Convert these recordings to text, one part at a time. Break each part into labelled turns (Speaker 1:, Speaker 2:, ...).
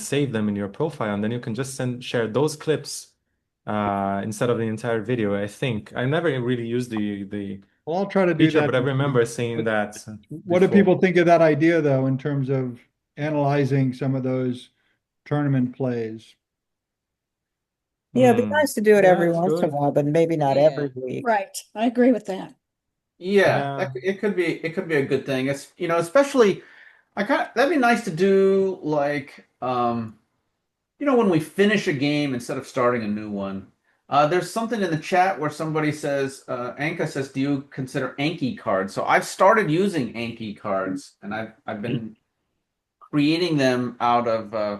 Speaker 1: save them in your profile, and then you can just send share those clips uh, instead of the entire video. I think I never really used the the
Speaker 2: Well, I'll try to do
Speaker 1: feature,
Speaker 2: that.
Speaker 1: but I remember seeing that.
Speaker 2: What do
Speaker 1: before.
Speaker 2: people think of that idea, though, in terms of analyzing some of those tournament plays?
Speaker 3: Yeah, it'd be
Speaker 1: Hmm.
Speaker 3: nice to do it
Speaker 1: Yeah,
Speaker 3: every
Speaker 1: it's
Speaker 3: once in a
Speaker 1: good.
Speaker 3: while, but maybe not
Speaker 4: Yeah.
Speaker 3: every week.
Speaker 5: Right, I agree with that.
Speaker 1: Yeah.
Speaker 4: Yeah, that, c- it could be it could be a good thing. It's you know, especially I kind of that'd be nice to do like um you know when we finish a game instead of starting a new one. Uh there's something in the chat where somebody says uh Anka says do you consider Anki cards? So I've started using Anki cards and I've I've been creating them out of uh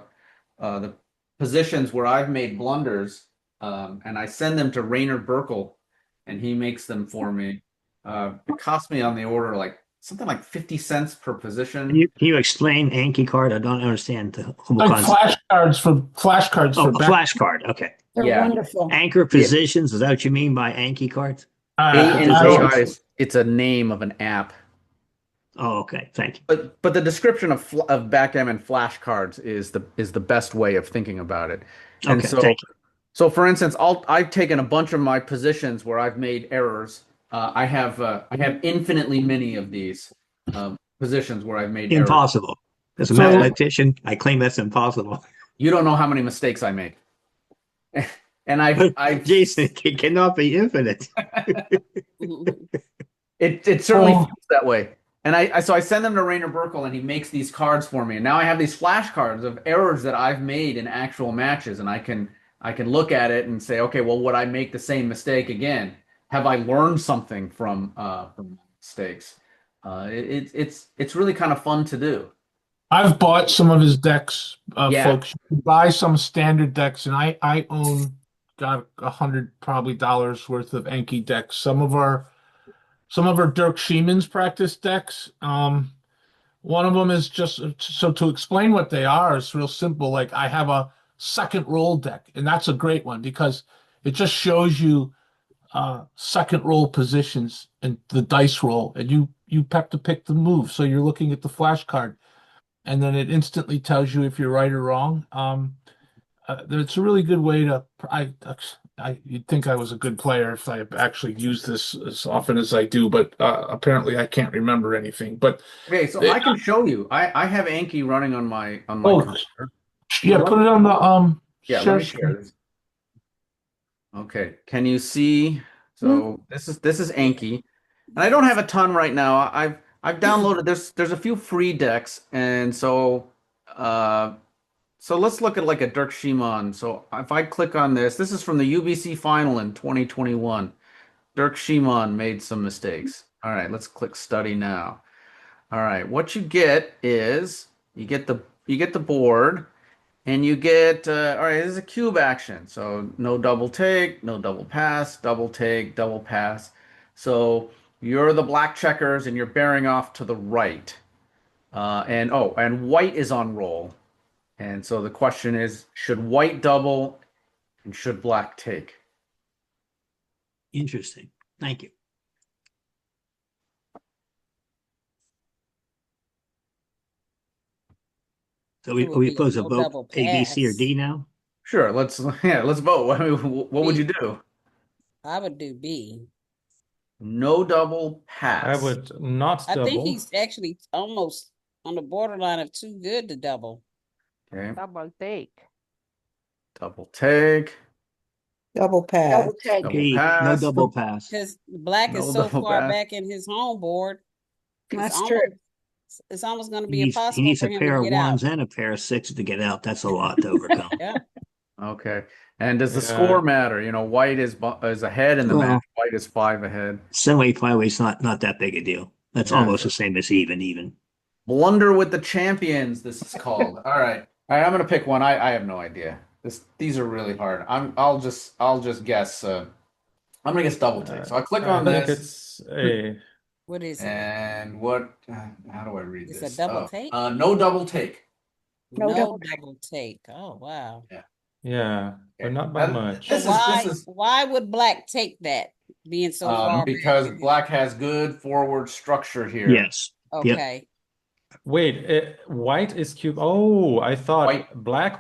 Speaker 4: uh the positions where I've made blunders um and I send them to Rainer Burkle and he makes them for me. Uh, it cost me on the order like something like 50 cents per position.
Speaker 6: Can you, can you explain Anki card? I don't understand the whole
Speaker 7: Like
Speaker 6: concept.
Speaker 7: flashcards for flashcards
Speaker 6: Oh,
Speaker 7: for
Speaker 6: a
Speaker 7: back.
Speaker 6: flash card. Okay.
Speaker 5: They're
Speaker 8: Yeah.
Speaker 5: wonderful.
Speaker 6: Anchor positions. Is that what you mean by Anki cards?
Speaker 7: Uh,
Speaker 8: A and
Speaker 7: I
Speaker 8: Z
Speaker 7: don't-
Speaker 8: card is it's a name of an app.
Speaker 6: Oh, okay. Thank you.
Speaker 8: But but the description of fl- of backgammon flashcards is the is the best way of thinking about it. And
Speaker 6: Okay.
Speaker 8: so-
Speaker 6: thank you.
Speaker 8: So, for instance, I'll, I've taken a bunch of my positions where I've made errors. Uh, I have uh, I have infinitely many of these um, positions where I've made errors.
Speaker 6: Impossible. As a
Speaker 7: So-
Speaker 6: mathematician, I claim that's impossible.
Speaker 8: You don't know how many mistakes I make. and I've, I've
Speaker 6: Jason, it cannot be infinite.
Speaker 8: It it certainly
Speaker 7: Oh.
Speaker 8: feels that way. And I, I so I send them to Rainer Burkle and he makes these cards for me. And now I have these flashcards of errors that I've made in actual matches, and I can I can look at it and say, okay, well, would I make the same mistake again? Have I learned something from uh, from mistakes? Uh, it, it, it's it's really kind of fun to do.
Speaker 7: I've bought some of his decks, uh,
Speaker 8: Yeah.
Speaker 7: folks. You buy some standard decks, and I I own got a hundred probably dollars worth of Enki decks. Some of our some of our Dirk Sheeman's practice decks. Um, one of them is just so to explain what they are. It's real simple. Like I have a second roll deck, and that's a great one because it just shows you uh second roll positions and the dice roll, and you you have to pick the move. So you're looking at the flash card and then it instantly tells you if you're right or wrong. Um, uh, it's a really good way to. I, I, you'd think I was a good player if I actually used this as often as I do, but uh, apparently I can't remember anything. But
Speaker 8: Okay, so I can show you. I, I have Anki running on my on my.
Speaker 7: Oh, yeah, put it on the um.
Speaker 8: Yeah, let me share this. Okay, can you see? So this is this is Anki, and I don't have a ton right now. I- I've I've downloaded there's there's a few free decks, and so uh, so let's look at like a Dirk Shimon. So if I click on this, this is from the UBC final in 2021. Dirk Shimon made some mistakes. All right, let's click study now. All right, what you get is you get the you get the board. And you get, uh, all right, this is a cube action. So no double take, no double pass, double take, double pass. So you're the black checkers and you're bearing off to the right. Uh, and oh, and white is on roll. And so the question is should white double and should black take?
Speaker 6: Interesting. Thank you. So we,
Speaker 3: It would
Speaker 6: we
Speaker 3: be a
Speaker 6: pose a
Speaker 3: no
Speaker 6: vote,
Speaker 3: double
Speaker 6: A, B, C, or
Speaker 3: pass.
Speaker 6: D now?
Speaker 8: Sure, let's, yeah, let's vote. I mean, wh- what would you do?
Speaker 3: I would do B.
Speaker 8: No double pass.
Speaker 1: I would not
Speaker 3: I
Speaker 1: double.
Speaker 3: think he's actually almost on the borderline of too good to double.
Speaker 8: Okay,
Speaker 9: Double take.
Speaker 8: double take.
Speaker 3: Double pass.
Speaker 5: Double take.
Speaker 8: Double
Speaker 6: B, no
Speaker 8: pass.
Speaker 6: double pass.
Speaker 3: Because black is
Speaker 8: No
Speaker 3: so
Speaker 8: double
Speaker 3: far
Speaker 8: pass.
Speaker 3: back in his home board. it's
Speaker 5: That's
Speaker 3: almost-
Speaker 5: true.
Speaker 3: it's- It's almost gonna be
Speaker 6: He needs, he
Speaker 3: impossible
Speaker 6: needs
Speaker 3: for
Speaker 6: a
Speaker 3: him
Speaker 6: pair
Speaker 3: to
Speaker 6: of
Speaker 3: get out.
Speaker 6: ones and a pair of sixes to get out. That's a lot to overcome.
Speaker 3: Yeah.
Speaker 8: Okay. And does the
Speaker 1: Yeah.
Speaker 8: score matter? You know, white is bu- is ahead in the
Speaker 6: Well-
Speaker 8: match. White is five ahead.
Speaker 6: Seven-way flyway's not not that big a deal. That's
Speaker 8: Yeah.
Speaker 6: almost the same as even even.
Speaker 8: Blunder with the champions. This is called. All right. All right. I'm gonna pick one. I I have no idea. This these are really hard. I'm I'll just I'll just guess. Uh, I'm gonna guess double take. So I click
Speaker 1: I
Speaker 8: on
Speaker 1: think
Speaker 8: this.
Speaker 1: it's a
Speaker 3: What is it?
Speaker 8: And what? uh, How do I read
Speaker 3: It's a
Speaker 8: this?
Speaker 3: double
Speaker 8: Oh,
Speaker 3: take?
Speaker 8: Uh, no double take.
Speaker 5: No
Speaker 3: No
Speaker 5: double take.
Speaker 3: double take. Oh, wow.
Speaker 1: yeah, but
Speaker 8: Okay.
Speaker 1: not by
Speaker 8: Uh,
Speaker 1: much.
Speaker 8: This is-
Speaker 3: Why,
Speaker 8: this is-
Speaker 3: why would black take that being so
Speaker 8: Um,
Speaker 3: far? back
Speaker 8: because
Speaker 3: in his-
Speaker 8: black has good forward structure here.
Speaker 6: Yes. yep.
Speaker 3: Okay,
Speaker 1: Wait, eh, white is cube. Oh, I thought
Speaker 4: White.
Speaker 1: black